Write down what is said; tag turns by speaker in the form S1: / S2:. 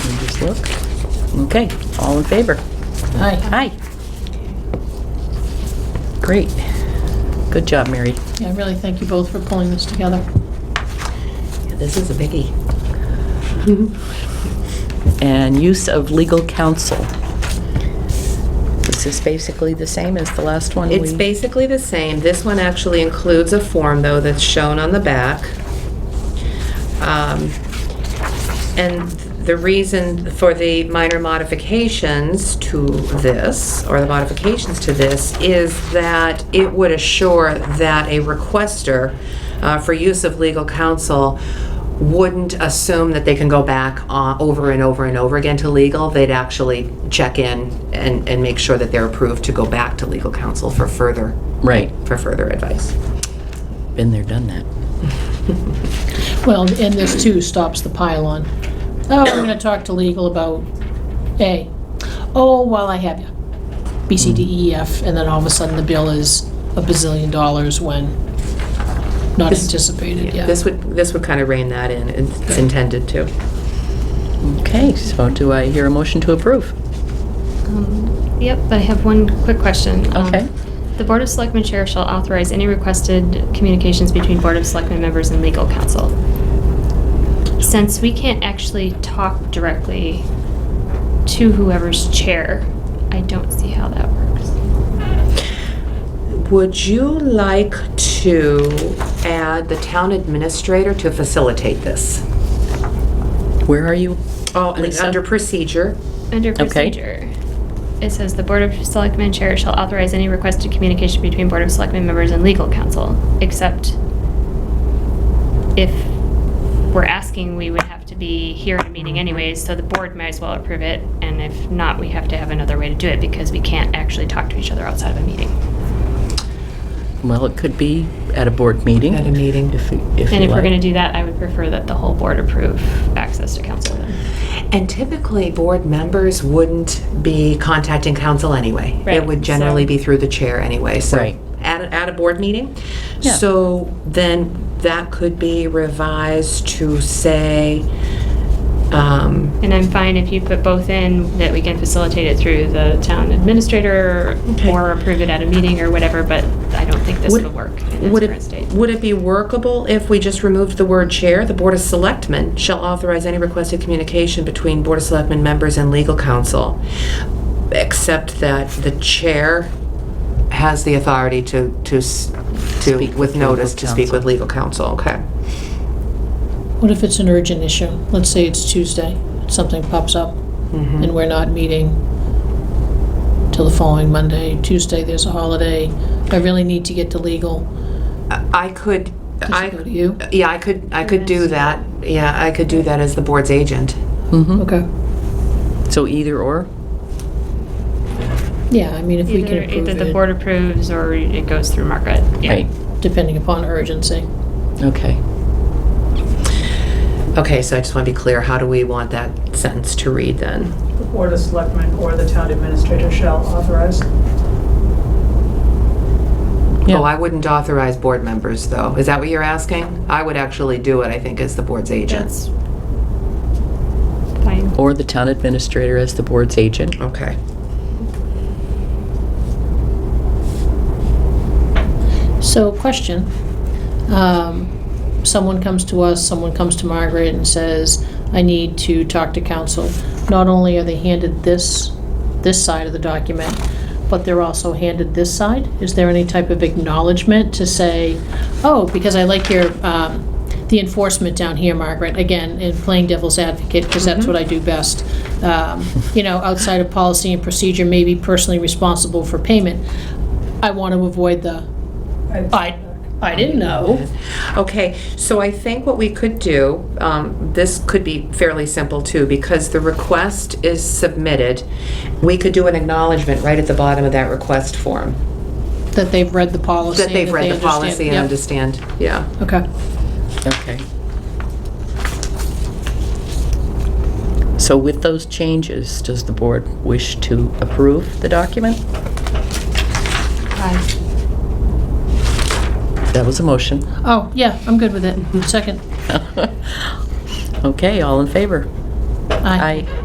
S1: Look. Okay, all in favor?
S2: Aye.
S1: Aye. Great. Good job, Mary.
S2: Yeah, I really thank you both for pulling this together.
S1: This is a biggie. And use of legal counsel. This is basically the same as the last one we...
S3: It's basically the same. This one actually includes a form, though, that's shown on the back. Um, And the reason for the minor modifications to this, or the modifications to this, is that it would assure that a requester uh, for use of legal counsel wouldn't assume that they can go back uh, over and over and over again to legal. They'd actually check in and, and make sure that they're approved to go back to legal counsel for further,
S1: Right.
S3: for further advice.
S1: Been there, done that.
S2: Well, and this too stops the pile-on. Oh, I'm gonna talk to legal about A. Oh, while I have you. B, C, D, E, F, and then all of a sudden the bill is a bazillion dollars when not
S3: This-
S2: anticipated, yeah.
S3: This would, this would kind of rein that in, it's intended to.
S1: Okay, so do I hear a motion to approve?
S4: Yep, but I have one quick question. Um,
S1: Okay.
S4: The Board of Selectmen Chair shall authorize any requested communications between Board of Selectmen members and legal counsel. Since we can't actually talk directly to whoever's chair, I don't see how that works.
S3: Would you like to add the town administrator to facilitate this?
S1: Where are you?
S3: Oh, and
S1: Lisa?
S3: under procedure,
S4: Under procedure, it says the Board of Selectmen Chair shall authorize any requested communication between Board of Selectmen members and legal counsel, except if we're asking, we would have to be here at a meeting anyways, so the board might as well approve it, and if not, we have to have another way to do it because we can't actually talk to each other outside of a meeting.
S1: Well, it could be at a board meeting.
S3: At a meeting.
S1: If, if
S4: And
S1: you
S4: if we're
S1: like.
S4: gonna do that, I would prefer that the whole board approve access to counsel then.
S3: and typically, board members wouldn't be contacting council anyway. It
S4: Right,
S3: would generally
S4: so-
S3: be through the chair anyway, so.
S1: Right.
S3: At, a- at a board meeting?
S1: Yeah.
S3: So then that could be revised to say, um,
S4: And I'm fine if you put both in, that we can facilitate it through the town administrator
S3: Okay.
S4: or approve it at a meeting or whatever, but I don't think this
S3: Would-
S4: will work in
S3: Would
S4: its current
S3: it,
S4: state.
S3: would it be workable if we just removed the word chair? The Board of Selectmen shall authorize any requested communication between Board of Selectmen members and legal counsel, except that the chair has the authority to, to, s- to,
S1: Speak with
S3: with
S1: legal
S3: notice, to speak
S1: counsel.
S3: with legal counsel, okay?
S2: What if it's an urgent issue? Let's say it's Tuesday, something pops up,
S3: Mm-hmm.
S2: and we're not meeting till the following Monday. Tuesday, there's a holiday. I really need to get to legal.
S3: I could,
S2: Does it go to
S3: I,
S2: you?
S3: yeah, I could, I could do
S4: Yes.
S3: that. Yeah, I could do that as the board's agent.
S1: Mhm.
S3: Mm-hmm.
S2: Okay.
S1: So either or?
S2: Yeah, I mean, if we can
S4: Either,
S2: approve
S4: either the
S2: it,
S4: board approves or it goes through Margaret. Yeah.
S1: Right,
S2: depending upon urgency.
S1: okay.
S3: Okay, so I just want to be clear, how do we want that sentence to read then?
S5: The Board of Selectmen or the town administrator shall authorize.
S1: Yeah.
S3: Oh, I wouldn't authorize board members, though. Is that what you're asking? I would actually do it, I think, as the board's agent.
S4: That's fine.
S1: Or the town administrator as the board's agent?
S3: Okay.
S2: So, question. Um, Someone comes to us, someone comes to Margaret and says, I need to talk to council. Not only are they handed this, this side of the document, but they're also handed this side? Is there any type of acknowledgement to say, oh, because I like your, um, the enforcement down here, Margaret, again, in playing devil's advocate, because that's what I do best. Um, You know, outside of policy and procedure, maybe personally responsible for payment. I want to avoid the, I, I didn't know.
S3: Okay, so I think what we could do, um, this could be fairly simple, too, because the request is submitted. We could do an acknowledgement right at the bottom of that request form,
S2: That they've read the policy.
S3: that they've read
S2: they
S3: the policy and understand, yeah.
S2: Yep. Okay.
S1: Okay. So with those changes, does the board wish to approve the document?
S4: Aye.
S1: That was a motion.
S2: Oh, yeah, I'm good with it. Second.
S1: Okay, all in favor?
S2: Aye.
S1: Aye.